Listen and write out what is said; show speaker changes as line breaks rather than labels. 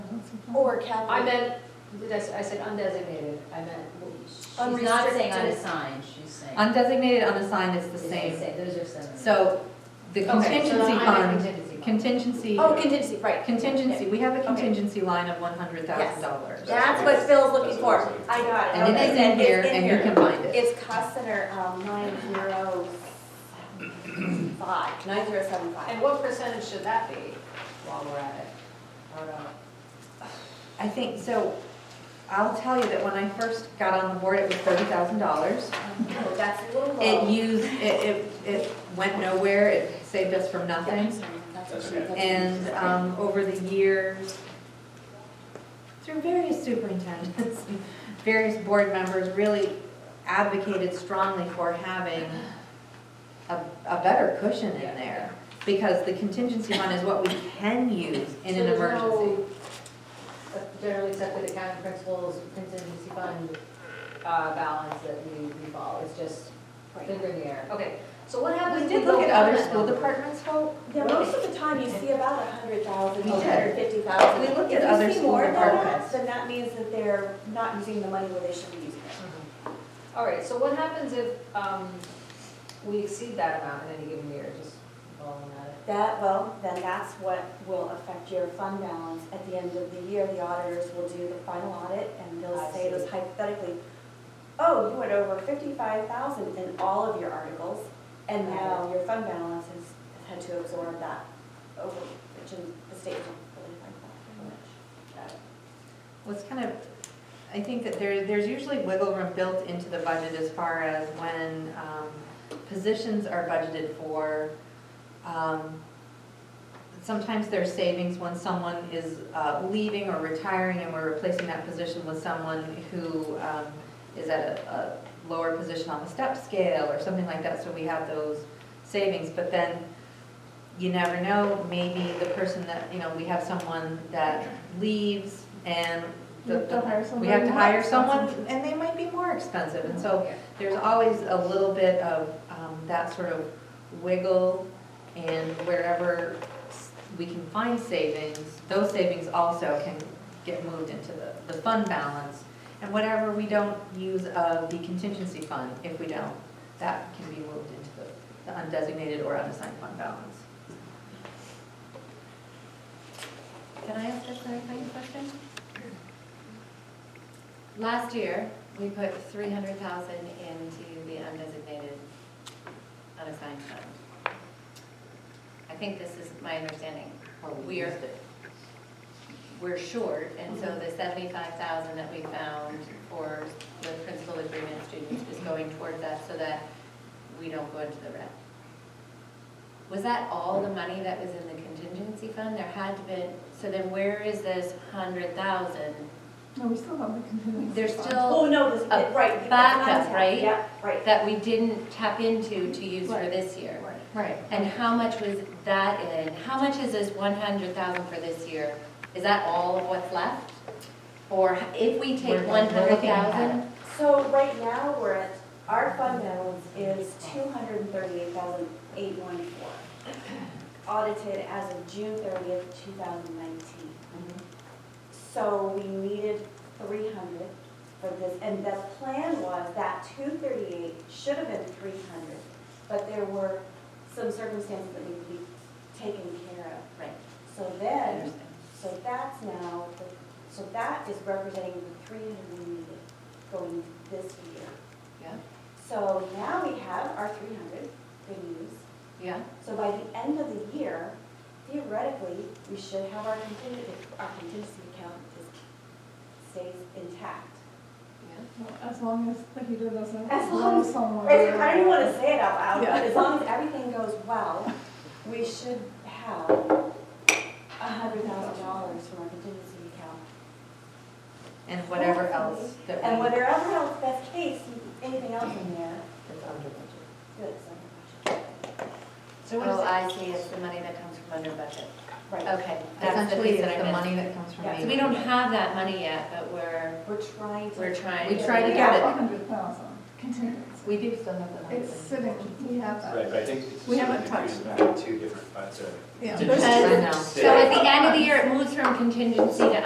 Or capital.
I meant, did I, s- I said undesignated, I meant.
She's not saying on a
Unrestricted.
sign, she's saying.
Undesignated unassigned is the
It's
same.
Those are similar.
So
Okay,
the
so
contingency
I meant
fund,
contingency fund.
contingency,
Oh, contingency, right.
contingency, we have a
Okay.
contingency line of one hundred thousand dollars.
That's what Phil's looking
That's
for.
what it's like.
I got it.
And it
Okay.
is in
It's
here and you can find it.
It's cost center, um, nine zero five, nine zero seven five.
And what percentage should that be while we're at it? I don't know.
I think, so I'll tell you that when I first got on the board, it was thirty thousand dollars.
Oh, That's a little
It
low.
used, it, it, it went nowhere, it saved us from nothing. And, um, over the years, through various superintendents, and various board members really advocated strongly for having a, a better cushion in there. Because the contingency fund is what we can use in
So
an
there's
emergency.
no, uh, Generally accepted accounting principles, contingency fund, uh, balance that we, we follow, it's just finger in the air. Okay, so what happens?
We
if
did look
don't
at
have
other
that
school
number?
departments, hope,
Yeah, most of the time you see about a hundred thousand,
We
a
did.
hundred fifty thousand.
We looked at other
If you see
school
more than that,
departments.
then that means that they're not using the money where they should be using it.
Mhm. All right, so what happens if um, we exceed that amount in any given year, just balling at it?
That, well, then that's what will affect your fund balance. At the end of the year, the auditors will do the final audit and they'll
I
say
see.
those hypothetically, oh, you went over fifty-five thousand in all of your articles and now your fund balance has has had to absorb that over, which in the state don't really like that very much. Got it.
Well, it's kind of, I think that there, there's usually wiggle room built into the budget as far as when um, positions are budgeted for. Um, Sometimes there's savings when someone is uh, leaving or retiring and we're replacing that position with someone who um, is at a a lower position on the step scale or something like that, so we have those savings. But then you never know, maybe the person that, you know, we have someone that leaves and the-
We have to hire
we have to hire
someone
someone and they might be more expensive. And so
Yeah.
there's always a little bit of um, that sort of wiggle and wherever s- we can find savings, those savings also can get moved into the, the fund balance. And whatever we don't use of the contingency fund, if we don't, that can be moved into the- the undesignated or unassigned fund balance. Can I ask a clarifying question?
Last year, we put three hundred thousand into the undesignated unassigned fund. I think this is my understanding. We are, we're short, and so the seventy-five thousand that we found for the principal agreement students is going towards that so that we don't go into the red. Was that all the money that was in the contingency fund? There had to been, so then where is this hundred thousand?
No, we still have the contingency.
There's
fund.
still.
Oh, no, this,
a
right. you-
backup,
that's not-
right?
Yeah, right.
that we didn't tap into to use for
Right.
this year?
Right.
Right.
And how much was that in? How much is this one hundred thousand for this year? Is that all of what's left? Or if we
We're-
take
we're
one hundred
looking at
thousand?
So right now, we're at, our fund balance is two hundred and thirty-eight thousand eight one four. Audited as of June thirtieth, two thousand nineteen. So we needed three hundred for this, and the plan was that two thirty-eight should have been three hundred, but there were some circumstances that need to be taken care of.
Right,
So
I
then,
understand.
so that's now, the- so that is representing the three hundred we needed going this year.
Yeah,
So now we have our three hundred, good news.
yeah.
So by the end of the year, theoretically, we should have our contingency, our contingency account is, stays intact.
Well, As long as the heater doesn't
As long
blow
as-
Mm-hmm. somewhere.
I don't even wanna say it out loud, but
Yeah.
as long as everything goes well, we should have a hundred thousand dollars from our contingency account
And whatever else that we.
And whatever else, that's case, anything else in there,
That's under budget.
good, so.
So what is
Oh,
it?
I see, it's the money that comes from under budget.
Right,
Okay, that's the
Essentially,
piece that
it's the
I missed.
money that comes from
Yeah,
me.
So we don't have that money yet, but we're,
we're trying to.
we're trying.
We try to get it.
hundred thousand contingency.
We do still have the money.
It's sitting, we have that.
Right, but I think it's.
We haven't
sort of
touched
confused about Two different, but, uh, so.
Yeah.
Contingency
I know.
fund
So at
stays.
the end of the year, it moves from contingency to